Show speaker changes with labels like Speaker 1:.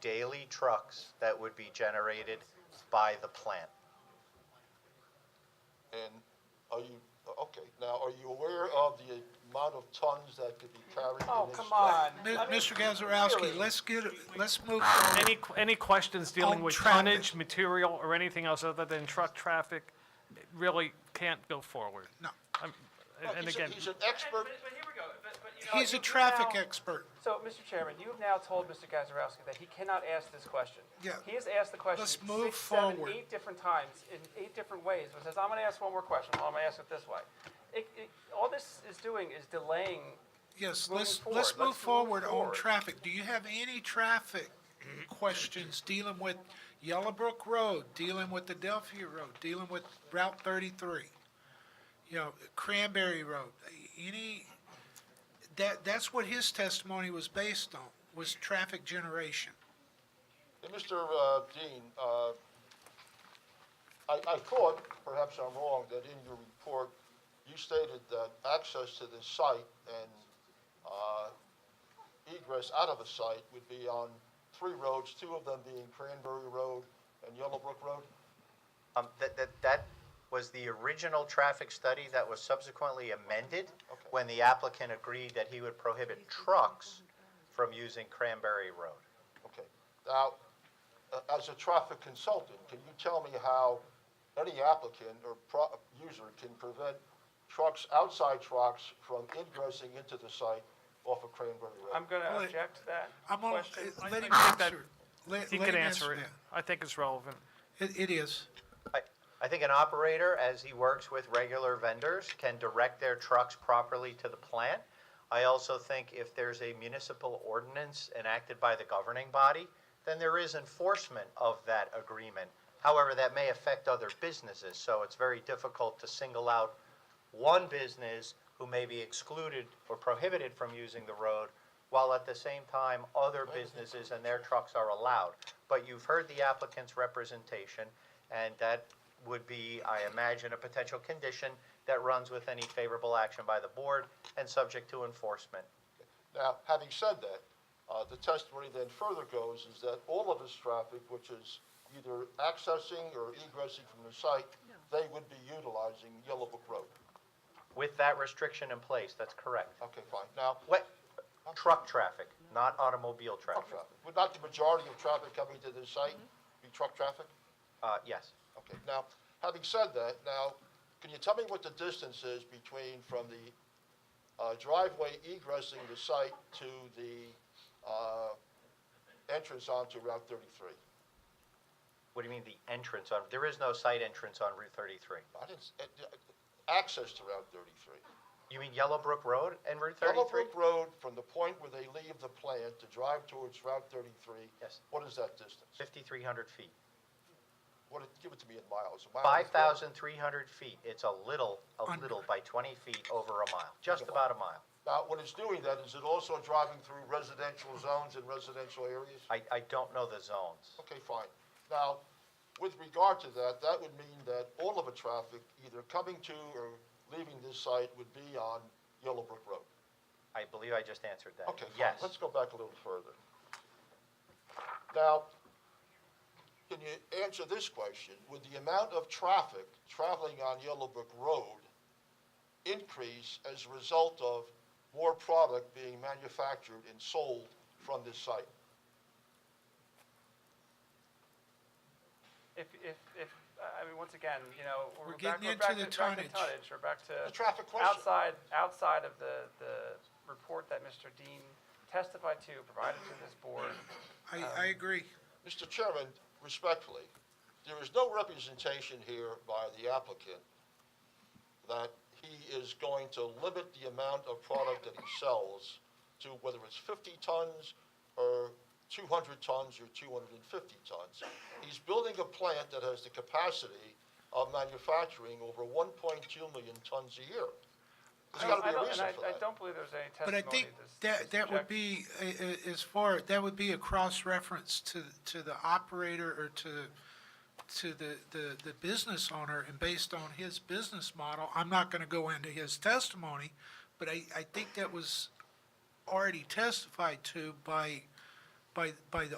Speaker 1: daily trucks that would be generated by the plant.
Speaker 2: And are you, okay, now, are you aware of the amount of tons that could be carried in this?
Speaker 3: Oh, come on.
Speaker 4: Mi-
Speaker 3: I mean,
Speaker 4: Mr. Gazarovski,
Speaker 3: really.
Speaker 4: let's get, let's move on.
Speaker 5: Any, any questions dealing
Speaker 4: On
Speaker 5: with
Speaker 4: traffic.
Speaker 5: tonnage, material, or anything else other than truck traffic really can't go forward?
Speaker 4: No,
Speaker 5: I'm-
Speaker 2: Look,
Speaker 5: And
Speaker 2: he's a-
Speaker 5: again,
Speaker 2: He's an expert,
Speaker 6: But, but here we go, but, but you know.
Speaker 4: he's a
Speaker 6: you- you
Speaker 4: traffic
Speaker 6: now-
Speaker 4: expert.
Speaker 3: So, Mr. Chairman, you have now told Mr. Gazarovski that he cannot ask this question.
Speaker 4: Yeah.
Speaker 3: He has asked the question
Speaker 4: Let's move
Speaker 3: six, seven,
Speaker 4: forward.
Speaker 3: eight different times, in eight different ways, but says, I'm gonna ask one more question, well, I'm gonna ask it this way. It, it, all this is doing is delaying
Speaker 4: Yes,
Speaker 3: Moving
Speaker 4: let's,
Speaker 3: forward,
Speaker 4: let's move
Speaker 3: let's move
Speaker 4: forward on
Speaker 3: forward.
Speaker 4: traffic. Do you have any traffic questions dealing with Yellowbrook Road, dealing with Adelphia Road, dealing with Route thirty-three? You know, Cranberry Road, any, that, that's what his testimony was based on, was traffic generation.
Speaker 2: and Mr. uh, Dean, uh, I, I thought, perhaps I'm wrong, that in your report, you stated that access to the site and uh, egress out of the site would be on three roads, two of them being Cranberry Road and Yellowbrook Road?
Speaker 1: Um, that, that, that was the original traffic study that was subsequently amended
Speaker 2: Okay.
Speaker 1: when the applicant agreed that he would prohibit trucks from using Cranberry Road.
Speaker 2: Okay. Now, uh, as a traffic consultant, can you tell me how any applicant or pro- user can prevent trucks, outside trucks, from ingressing into the site off of Cranberry
Speaker 3: I'm
Speaker 2: Road?
Speaker 3: gonna
Speaker 4: Well,
Speaker 3: object to that
Speaker 4: I'm gonna,
Speaker 3: question.
Speaker 4: uh, let
Speaker 5: I-
Speaker 4: him
Speaker 5: I think that
Speaker 4: answer. Let-
Speaker 5: he
Speaker 4: let
Speaker 5: can
Speaker 4: him
Speaker 5: answer it.
Speaker 4: that.
Speaker 5: I think it's relevant.
Speaker 4: It, it is.
Speaker 1: I, I think an operator, as he works with regular vendors, can direct their trucks properly to the plant. I also think if there's a municipal ordinance enacted by the governing body, then there is enforcement of that agreement. However, that may affect other businesses, so it's very difficult to single out one business who may be excluded or prohibited from using the road, while at the same time, other businesses and their trucks are allowed. But you've heard the applicant's representation, and that would be, I imagine, a potential condition that runs with any favorable action by the board and subject to enforcement.
Speaker 2: Now, having said that, uh, the testimony then further goes is that all of this traffic, which is either accessing or egressing from the site, they would be utilizing Yellowbrook Road.
Speaker 1: With that restriction in place, that's correct.
Speaker 2: Okay, fine. Now,
Speaker 1: What, truck traffic, not automobile
Speaker 2: truck
Speaker 1: traffic.
Speaker 2: traffic. Would not the majority of traffic coming to this site be truck traffic?
Speaker 1: Uh, yes.
Speaker 2: Okay, now, having said that, now, can you tell me what the distance is between from the uh, driveway egressing the site to the uh, entrance onto Route 33?
Speaker 1: What do you mean the entrance on, there is no site entrance on Route thirty-three.
Speaker 2: I didn't, s- uh, uh, access to Route 33.
Speaker 1: You mean Yellowbrook Road and Route thirty-three?
Speaker 2: Yellowbrook Road, from the point where they leave the plant to drive towards Route 33,
Speaker 1: Yes.
Speaker 2: what is that distance?
Speaker 1: Fifty-three hundred feet.
Speaker 2: What, it- give it to me in miles. A mile
Speaker 1: Five
Speaker 2: is four-
Speaker 1: thousand three hundred feet, it's a little, a
Speaker 4: Under.
Speaker 1: little by twenty feet over a mile, just about a mile.
Speaker 2: Now, when it's doing that, is it also driving through residential zones and residential areas?
Speaker 1: I, I don't know the zones.
Speaker 2: Okay, fine. Now, with regard to that, that would mean that all of the traffic either coming to or leaving this site would be on Yellowbrook Road.
Speaker 1: I believe I just answered that.
Speaker 2: Okay, fine.
Speaker 1: Yes.
Speaker 2: Let's go back a little further. Now, can you answer this question? Would the amount of traffic traveling on Yellowbrook Road increase as a result of more product being manufactured and sold from this site?
Speaker 3: If, if, if, uh, I mean, once again, you know, we're
Speaker 4: We're
Speaker 3: back,
Speaker 4: getting
Speaker 3: we're back to,
Speaker 4: into the
Speaker 3: back to
Speaker 4: tonnage.
Speaker 3: tonnage, we're back to.
Speaker 2: The traffic question.
Speaker 3: Outside, outside of the, the report that Mr. Dean testified to, provided to this board,
Speaker 4: I, I agree.
Speaker 2: Mr. Chairman, respectfully, there is no representation here by the applicant that he is going to limit the amount of product that he sells to whether it's 50 tons or 200 tons or 250 tons. He's building a plant that has the capacity of manufacturing over 1.2 million tons a year. There's got to be
Speaker 3: I
Speaker 2: a
Speaker 3: don't, and
Speaker 2: reason
Speaker 3: I,
Speaker 2: for
Speaker 3: I
Speaker 2: that.
Speaker 3: don't believe there's any
Speaker 4: But I
Speaker 3: testimony
Speaker 4: think
Speaker 3: that's- that's
Speaker 4: that, that would
Speaker 3: objective.
Speaker 4: be, uh, uh, as far, that would be a cross-reference to, to the operator or to, to the, the, the business owner, and based on his business model, I'm not gonna go into his testimony, but I, I think that was already testified to by, by, by the